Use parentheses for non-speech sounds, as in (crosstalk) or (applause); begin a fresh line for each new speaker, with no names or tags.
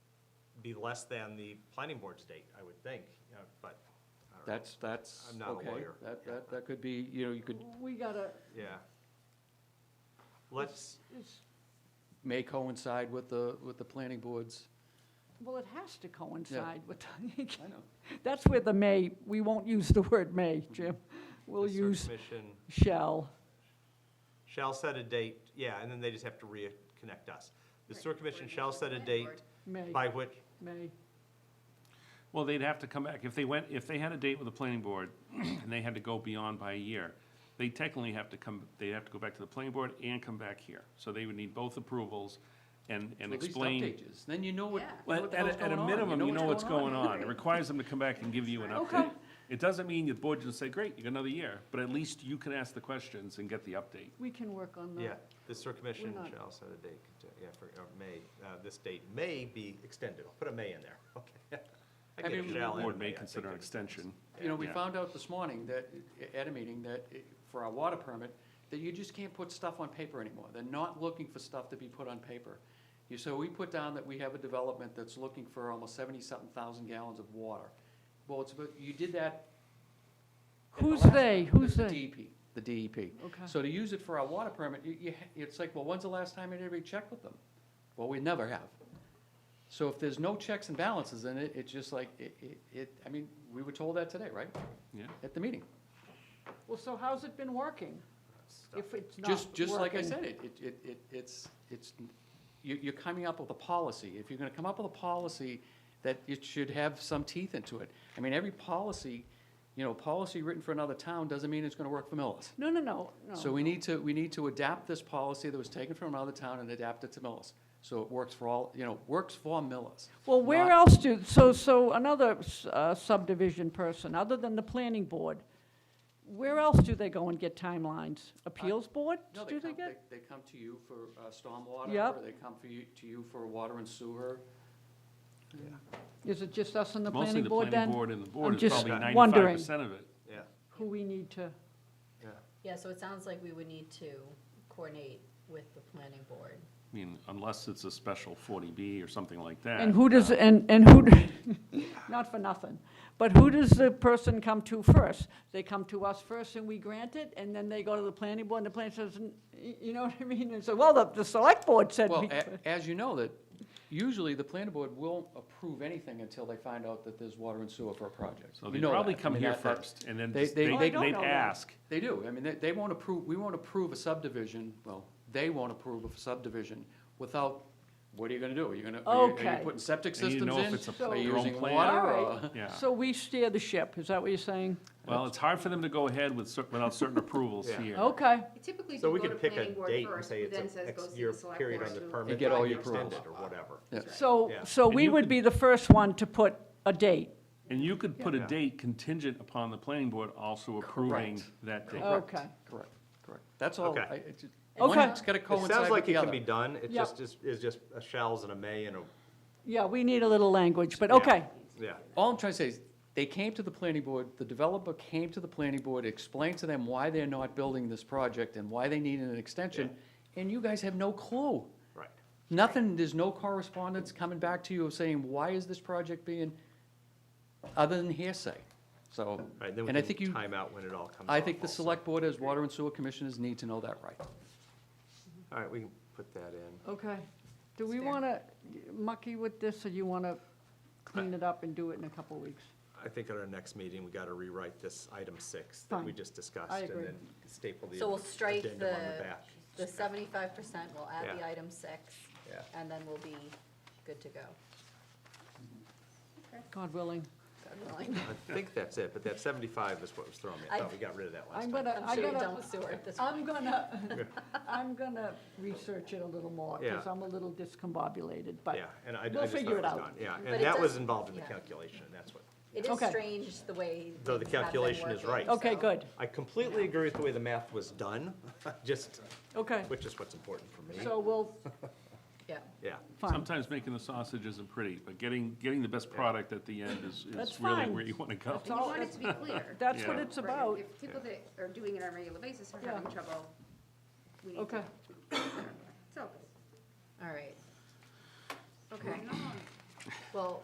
be less than the planning board's date, I would think, you know, but, I don't know.
That's, that's.
I'm not a
okay.
lawyer.
That,
Yeah.
that, that could be, you know, you could,
We gotta,
Yeah. Let's,
it's,
may coincide with the, with the planning boards.
well, it has to coincide with, (laughs)
I know.
that's where the may, we won't use the word may,
Mm-hmm.
Jim. We'll
the search
use
commission
shall.
shall set a date, yeah, and then they just have to reconnect us. The sewer commission shall set a date
May,
by which,
may,
Well, they'd have to come back, if they went, if they had a date with the planning board, (clears throat) and they had to go beyond by a year, they technically have to come, they'd have to go back to the planning board and come back here. So they would need both approvals and, and
At least
explain.
update is. Then you know what,
Yeah.
what
Well,
the
at,
hell's
a- at
going
a
on.
minimum, you know what's going on. It
Right.
requires them to come back and give you an
Okay.
update. It doesn't mean the board just say, great, you got another year, but at least you can ask the questions and get the update.
we can work on
yeah,
that.
the sewer commission
not-
shall set a date, yeah, for, uh, may, uh, this date may be extended. I'll put a may in there, (laughs) okay. I
I
get
mean,
shall
The
and
board
I
may
think
consider an
it depends.
extension.
You know, we
Yeah.
found out this morning that, i- at a meeting, that i- for our water permit, that you just can't put stuff on paper anymore. They're not looking for stuff to be put on paper. You, so we put down that we have a development that's looking for almost seventy-something thousand gallons of water. Well, it's, about- you did that. in the
Who's
last-
they? Who's
the
they?
DEP, the E DEP.
Okay.
So to use it for our water permit, you, you, ha- it's like, well, when's the last time anybody checked with them? Well, we never have. So if there's no checks and balances in it, it's just like, it, it- it, I mean, we were told that today, right?
Yeah.
At the meeting.
Well, so how's it been working? If it's not
Just, just like I
working?
said, it, it- it, it, it's, it's, you, you're coming up with a policy. If you're gonna come up with a policy, that it should have some teeth into it. I mean, every policy, you know, policy written for another town doesn't mean it's gonna work for Millis.
No, no, no, no.
So we need to, we need to adapt this policy that was taken from another town and adapt it to Millis. So it works for all, you know, works for Millis.
Well, where
not-
else do, so, so another s- uh, subdivision person, other than the planning board, where else do they go and get timelines? Appeals board?
No, they
Do
come,
they get?
they, they come to you for uh, stormwater.
Yep.
Or they come for you, to you for water and sewer.
Is it just us and the planning
Mostly the
board
planning
then?
board and the
I'm
board is
just
probably ninety-five
wondering.
percent of it.
Yeah,
Who we need to,
yeah.
Yeah, so it sounds like we would need to coordinate with the planning board.
I mean, unless it's a special forty B or something like that.
and who does, and, and who, d- (laughs) not for nothing, but who does the person come to first? They come to us first and we grant it, and then they go to the planning board and the planning says, "N- y- you know what I mean? And so, well, the, the select board said.
Well, eh,
we could."
a- as you know, that usually the planning board won't approve anything until they find out that there's water and sewer for a project.
So
You
they
know
probably
that. I
come
mean,
here
that- that-
first, and then
they-
just-
they-
they,
Oh, I
they'd
don't know that.
ask.
They do. I mean, they, they won't approve, we won't approve a subdivision, well, they won't approve a subdivision without, what are you gonna do? Are you gonna, are you- are
Okay.
you putting septic
And you
systems
know if it's
in?
a-
So-
Are
their
you
own
using
plan.
water
(laughs) All
or?
Yeah.
So we steer the ship, is that what you're saying?
Well, it's hard for them to go ahead with, cer-
(laughs)
without certain approvals
Yeah.
here.
Okay,
Typically,
So
do
we
go to
could pick a
planning board
date and
first,
say
who then
it's
says
an
go
X
see
year
the select
period
board
on the
to-
permit.
And get all
to
your
extend
approvals.
it Or whatever.
Yeah.
so,
Yeah.
so
And
we
you
would
could-
be the first one to put a date.
And you could put a
Yeah.
date contingent upon the planning board also
(laughs)
approving
Correct.
that date.
Okay,
Correct, correct. That's all.
Okay.
I- it's just-
Okay.
One's gotta
It
coincide
sounds
with
like it
the
can be
other.
done, it
Yeah.
just is, is just a shells and a may and a,
yeah, we need a little language, but
Yeah.
okay,
yeah,
All I'm trying to say is, they came to the planning board, the developer came to the planning board, explained to them why they're not building this project and why they need an extension, and you guys have no clue.
right.
Nothing, there's no correspondence coming back to you of saying, why is this project being, other than hearsay? So,
Right, then
and I
we
think
can
you,
time out when it all comes off.
I think the
also.
select board as water and sewer commissioners need to know that right.
All right, we can put that in.
okay. Do we
It's fair.
want to mucky with this, or you want to clean it up and do it in a couple of weeks?
I think at our next meeting, we gotta rewrite this item six that we
Fine.
just discussed.
I agree.
And then staple the
So we'll strike
addendum on
the-
the back.
The seventy-five percent, we'll add the
Yeah.
item six,
Yeah.
and then we'll be good to go.
God willing.
God willing.
I think that's it, but that seventy-five is what was throwing me. I
I-
thought we got rid of that last
I'm
time.
gonna, I
I'm sure you're done
gotta,
with sewer at this
I'm
(laughs)
point.
gonna, I'm gonna research it a little more, because
Yeah.
I'm a little discombobulated, but,
Yeah, and I, I
we'll
just thought it
figure
was
it out.
done. Yeah,
But
and
it
that was
does-
involved in the
yeah.
calculation, and that's what,
It is
Okay.
strange the way.
Though the
things have been
calculation is
working,
right.
okay,
so-
good,
I completely agree with the way the math was done, (laughs) just,
okay.
which is what's important for me. (laughs)
So we'll,
Yeah,
Yeah,
fine,
Sometimes making the sausage isn't pretty, but getting, getting the best product at the end is,
That's
is really
fine.
where you want to go.
That's
And
all-
you want it to be clear.
that's what
Yeah.
it's
right?
about.
If people that are doing it on a regular basis are
Yeah.
having trouble, we need to.
Okay,
So,
all right.
okay.
Well,